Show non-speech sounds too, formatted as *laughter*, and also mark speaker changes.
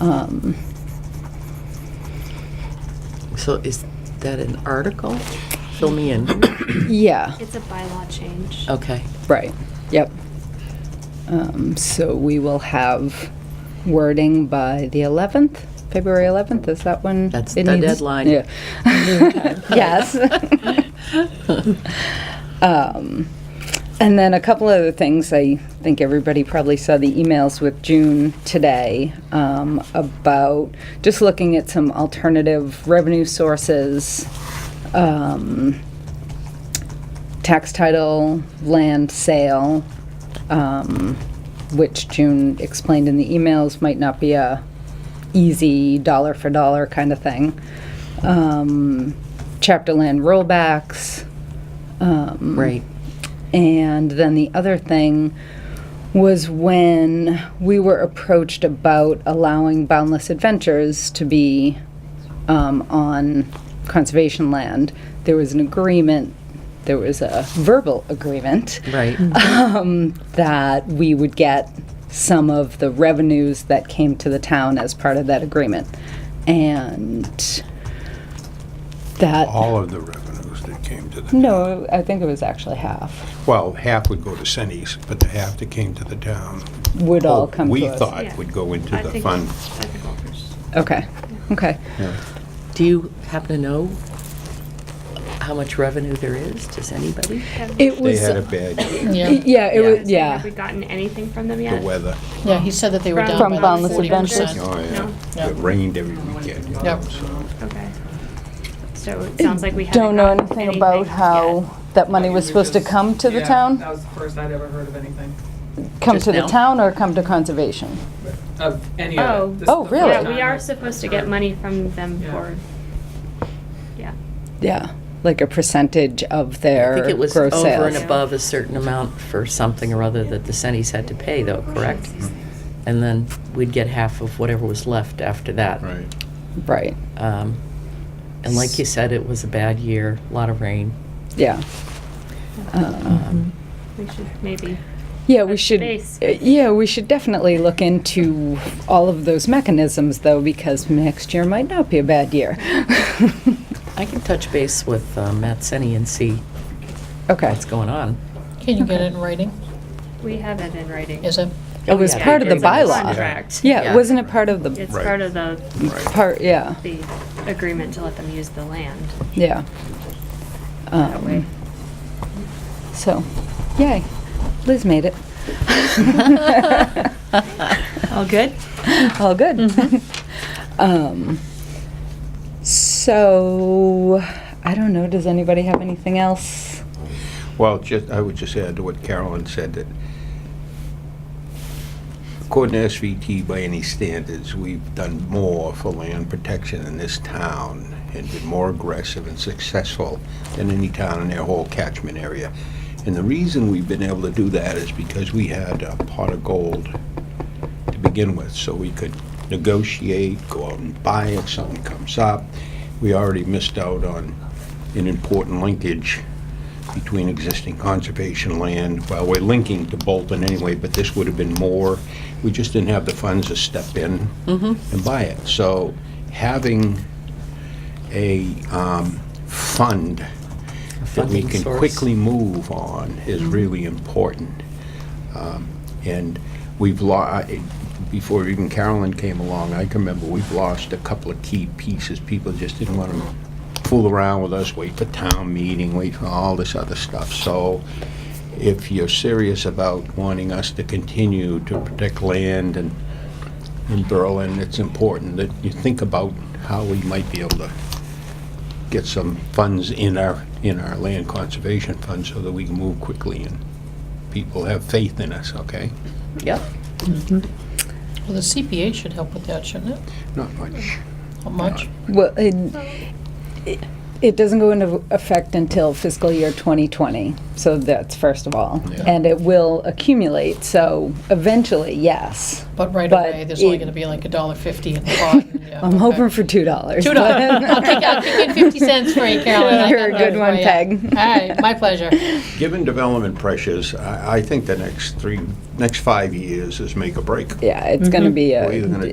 Speaker 1: um,
Speaker 2: So is that an article? Fill me in.
Speaker 1: yeah,
Speaker 3: It's a bylaw change.
Speaker 1: Oh.
Speaker 2: Okay.
Speaker 1: right, yep. Um, So we will have wording by the 11th, February 11th, is that when?
Speaker 2: That's
Speaker 1: it
Speaker 2: the
Speaker 1: needs-
Speaker 2: deadline.
Speaker 1: Yeah. *laughs* Yes. Um, And then a couple other things, I think everybody probably saw the emails with June today um, about just looking at some alternative revenue sources, um, tax title, land sale, um, which June explained in the emails might not be a easy dollar for dollar kind of thing. Um, chapter land rollbacks, um,
Speaker 2: Right.
Speaker 1: and then the other thing was when we were approached about allowing Boundless Adventures to be um, on conservation land. There was an agreement, there was a verbal agreement
Speaker 2: Right.
Speaker 1: um, that we would get some of the revenues that came to the town as part of that agreement. And that,
Speaker 4: all of the revenues that came to the,
Speaker 1: no, I think it was actually half,
Speaker 4: well, half would go to Sennies, but the half that came to the town. Oh,
Speaker 1: would all come to us.
Speaker 4: We thought
Speaker 3: Yeah.
Speaker 4: would go into
Speaker 3: I
Speaker 4: the
Speaker 3: think-
Speaker 4: fund.
Speaker 3: I think all first.
Speaker 1: Okay, okay.
Speaker 2: Do you happen to know how much revenue there is? Does anybody?
Speaker 1: It
Speaker 4: They
Speaker 1: was,
Speaker 4: had a bad year,
Speaker 5: Yeah,
Speaker 1: yeah, it was,
Speaker 3: Have
Speaker 1: yeah,
Speaker 3: we gotten anything from them
Speaker 4: the
Speaker 3: yet?
Speaker 4: weather,
Speaker 5: yeah, he said that they were down
Speaker 1: From
Speaker 5: by
Speaker 1: Boundless
Speaker 5: forty percent.
Speaker 1: Adventures.
Speaker 4: oh, yeah,
Speaker 5: Yeah.
Speaker 4: it rained every weekend, you know,
Speaker 5: Yep.
Speaker 4: so.
Speaker 3: Okay. So it sounds like we haven't
Speaker 1: don't know
Speaker 3: gotten
Speaker 1: anything about how that money
Speaker 6: It
Speaker 1: was supposed to
Speaker 6: just-
Speaker 1: come to the
Speaker 6: yeah, That
Speaker 1: town?
Speaker 6: was the first I'd ever heard of anything,
Speaker 1: Come
Speaker 2: Just
Speaker 1: to the
Speaker 2: now?
Speaker 1: town or come to conservation?
Speaker 6: of any
Speaker 3: Oh.
Speaker 6: of it. This is
Speaker 1: Oh,
Speaker 6: the
Speaker 1: really?
Speaker 6: first
Speaker 3: Yeah, we
Speaker 6: time
Speaker 3: are
Speaker 6: I've
Speaker 3: supposed to get
Speaker 6: heard.
Speaker 3: money from them
Speaker 6: Yeah.
Speaker 3: for, yeah.
Speaker 1: Yeah, like a percentage of
Speaker 2: I
Speaker 1: their
Speaker 2: think it
Speaker 1: gross
Speaker 2: was
Speaker 1: sales.
Speaker 2: over and above a certain amount for something or other that the Sennies had to pay though, correct? And then we'd get half of whatever was left after that.
Speaker 4: Right.
Speaker 1: Right,
Speaker 2: Um, And like you said, it was a bad year, a lot of rain.
Speaker 1: yeah. Um,
Speaker 2: Um,
Speaker 3: We should maybe,
Speaker 1: Yeah, we
Speaker 3: touch
Speaker 1: should,
Speaker 3: base.
Speaker 1: uh, yeah, we should definitely look into all of those mechanisms, though, because next year might not be a bad year. *laughs*
Speaker 2: I can touch base with uh, Matt Senni and see
Speaker 1: Okay.
Speaker 2: what's going on.
Speaker 5: Can you get it in writing?
Speaker 3: we have it in writing.
Speaker 5: Is it?
Speaker 1: It was
Speaker 2: Oh, yeah,
Speaker 1: part of the
Speaker 2: agreement is-
Speaker 1: bylaw.
Speaker 3: Contract.
Speaker 1: Yeah, wasn't it part of the,
Speaker 3: It's
Speaker 4: Right.
Speaker 3: part of the,
Speaker 1: part, yeah,
Speaker 3: the agreement to let them use the land.
Speaker 1: yeah.
Speaker 3: That way.
Speaker 1: Um, So, yay, Liz made it.
Speaker 2: All good?
Speaker 1: All good. *laughs* Um, So, I don't know, does anybody have anything else?
Speaker 4: Well, just, I would just add to what Carolyn said, that according to SVT, by any standards, we've done more for land protection in this town and been more aggressive and successful than any town in their whole catchment area. And the reason we've been able to do that is because we had a pot of gold to begin with, so we could negotiate, go out and buy if something comes up. We already missed out on an important linkage between existing conservation land. Well, we're linking to Bolton anyway, but this would have been more. We just didn't have the funds to step in and buy it. So having a um, fund that we
Speaker 2: funding
Speaker 4: can
Speaker 2: source. Mm-hmm.
Speaker 4: quickly move on is really important. Um, And we've lost, before even Carolyn came along, I can remember we've lost a couple of key pieces. People just didn't want to fool around with us, wait for town meeting, wait for all this other stuff. So if you're serious about wanting us to continue to protect land and in Berlin, it's important that you think about how we might be able to get some funds in our, in our land conservation fund so that we can move quickly and people have faith in us, okay?
Speaker 2: Yep.
Speaker 5: Well, the CPA should help with that, shouldn't it?
Speaker 4: Not much.
Speaker 5: Not much.
Speaker 1: Well, it, it- it doesn't go into effect until fiscal year 2020, so that's first of all.
Speaker 4: Yeah.
Speaker 1: And it will accumulate, so eventually, yes.
Speaker 5: But right
Speaker 1: But
Speaker 5: away, there's only
Speaker 1: it-
Speaker 5: gonna be like a dollar fifty in the pot.
Speaker 1: *laughs*
Speaker 5: yeah,
Speaker 1: I'm
Speaker 5: okay. *laughs*
Speaker 1: hoping for $2.
Speaker 5: Two dollars. *laughs* I'll take, I'll take in fifty cents for you, Carolyn.
Speaker 1: *laughs*
Speaker 5: I
Speaker 1: You're
Speaker 5: got
Speaker 1: a good
Speaker 5: that
Speaker 1: one,
Speaker 5: for ya.
Speaker 1: Peg.
Speaker 5: All right, my pleasure.
Speaker 1: *laughs*
Speaker 4: Given development pressures, I, I think the next three, next five years is make or break.
Speaker 1: *laughs* Yeah, it's going to be a.
Speaker 4: We're either gonna do